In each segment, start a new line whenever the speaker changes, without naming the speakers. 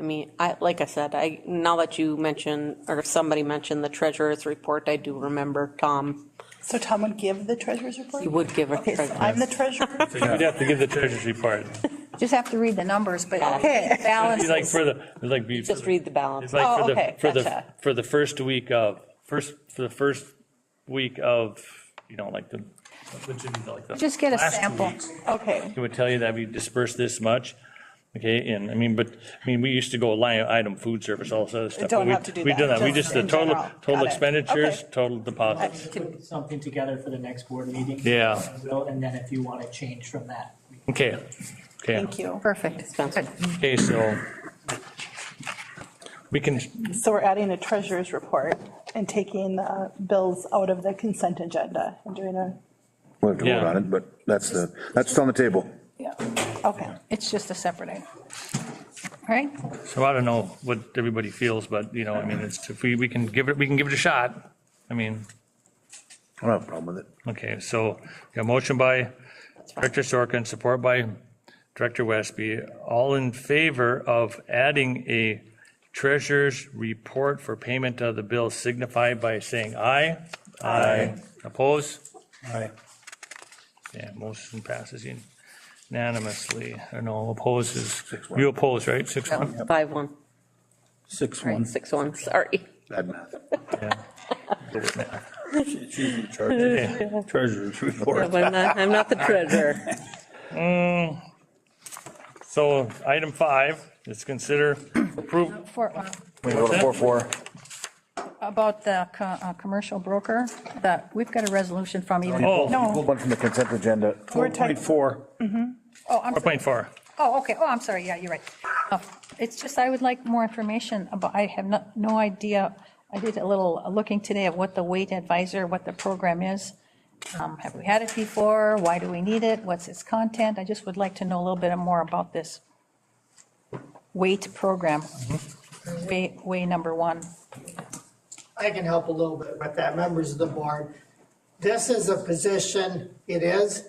I mean, I, like I said, I, now that you mention, or somebody mentioned the treasurer's report, I do remember Tom
So Tom would give the treasurer's report?
He would give a
Okay, so
treasurer's-
I'm the treasurer?
So you'd have to give the treasurer's report.
Just have to read the numbers, but
Okay.
balance.
It's like for the, it's like. be-
Just read the balance.
It's like
Oh,
for the,
okay,
for the,
gotcha.
for the first week of, first, for the first week of, you know, like the, which is like the.
Just get a
last two
sample.
weeks.
Okay,
It would tell you that we dispersed this much, okay, and, I mean, but, I mean, we used to go line item, food service, all this other stuff. but
don't
we-
have to do
We
that,
do that, we
just
just, the
in
total,
general. Got
total
it.
expenditures,
Okay.
total deposits.
Put something together for the next board meeting.
Yeah.
Will, And then if you want to change from that, we can
Okay, okay.
thank you.
Perfect.
Spencer.
Good.
Okay, so we can,
So we're adding a treasurer's report and taking uh, bills out of the consent agenda and doing a,
We'll have to vote
Yeah.
on it, but that's the, that's on the table.
yeah, okay.
It's just a separate item. All right?
so I don't know what everybody feels, but, you know, I mean, it's, if we, we can give it, we can give it a shot. I mean,
I don't have a problem with it.
okay, so, a motion by Director Sorkin, support by Director Westby, all in favor of adding a treasurer's report for payment of the bill signify by saying aye. Aye. Oppose?
Aye.
Yeah, motion passes unanimously. Or no, opposes. You oppose, right? Six, one?
Five one,
Six one.
six one, sorry.
Bad math.
It's usually treasurer's- Treasurer's report.
But I'm not, I'm not the treasurer.
So item five is consider approve,
For, uh,
We go to four, four.
about the co- uh, commercial broker, that, we've got a resolution from even.
Oh.
No,
One from the consent agenda.
We're type-
4.4.
oh, I'm, sorry.
4.4.
oh, okay, oh, I'm sorry, yeah, you're right. Oh, It's just, I would like more information about, I have no, no idea, I did a little looking today of what the weight advisor, what the program is. Um, Have we had it before? Why do we need it? What's its content? I just would like to know a little bit more about this weight program, way, way number one.
I can help a little bit with that, members of the board. This is a position, it is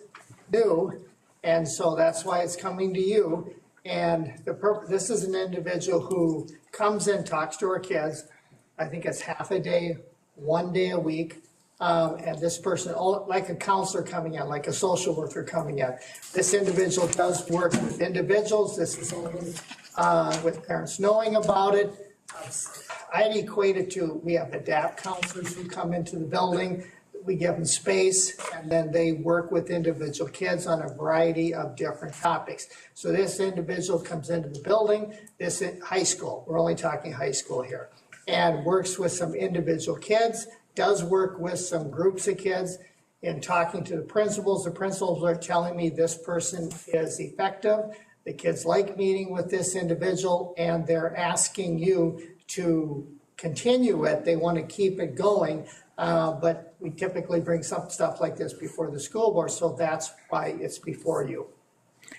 new, and so that's why it's coming to you. And the purpose, this is an individual who comes and talks to her kids. I think it's half a day, one day a week. Um, and this person, all- like a counselor coming in, like a social worker coming in. This individual does work with individuals. This is only, uh, with parents knowing about it. I'd equate it to, we have adapt counselors who come into the building, we give them space, and then they work with individual kids on a variety of different topics. So this individual comes into the building, this is high school, we're only talking high school here, and works with some individual kids, does work with some groups of kids. In talking to the principals, the principals are telling me this person is effective, the kids like meeting with this individual, and they're asking you to continue it. They want to keep it going. uh, But we typically bring some stuff like this before the school board, so that's why it's before you.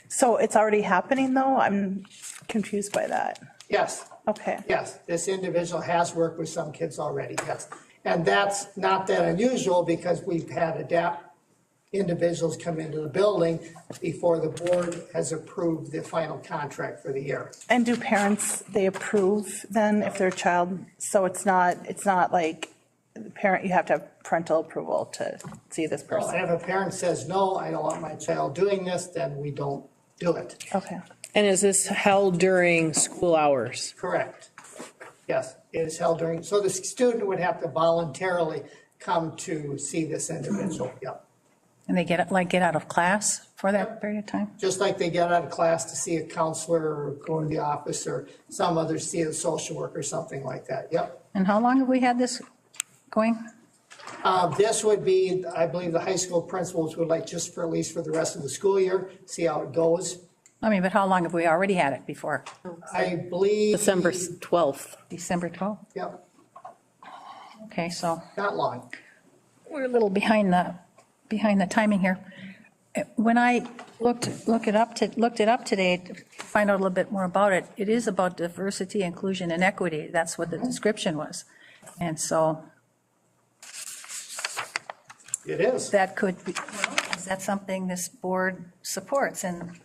So it's already happening, though? I'm confused by that.
Yes,
Okay.
yes, this individual has worked with some kids already, yes. And that's not that unusual because we've had adapt individuals come into the building before the board has approved the final contract for the year.
And do parents, they approve then if their child, so it's not, it's not like the parent, you have to have parental approval to see this
So
person?
If a parent says, no, I don't want my child doing this, then we don't do it.
Okay.
And is this held during school hours?
Correct. Yes, it is held during, so the student would have to voluntarily come to see this individual, yep.
And they get, like, get out of class for that period of time?
Just like they get out of class to see a counselor or go to the office or some other, see a social worker or something like that, yep.
And how long have we had this going?
Uh, This would be, I believe, the high school principals would like just for at least for the rest of the school year, see how it goes.
I mean, but how long have we already had it before?
I believe.
December 12th.
December 12th?
Yep,
Okay, so
not long.
we're a little behind the, behind the timing here. Uh, When I looked, look it up, to looked it up today to find out a little bit more about it, it is about diversity, inclusion, and equity. That's what the description was. And so
It is.
that could be, is that something this board supports? And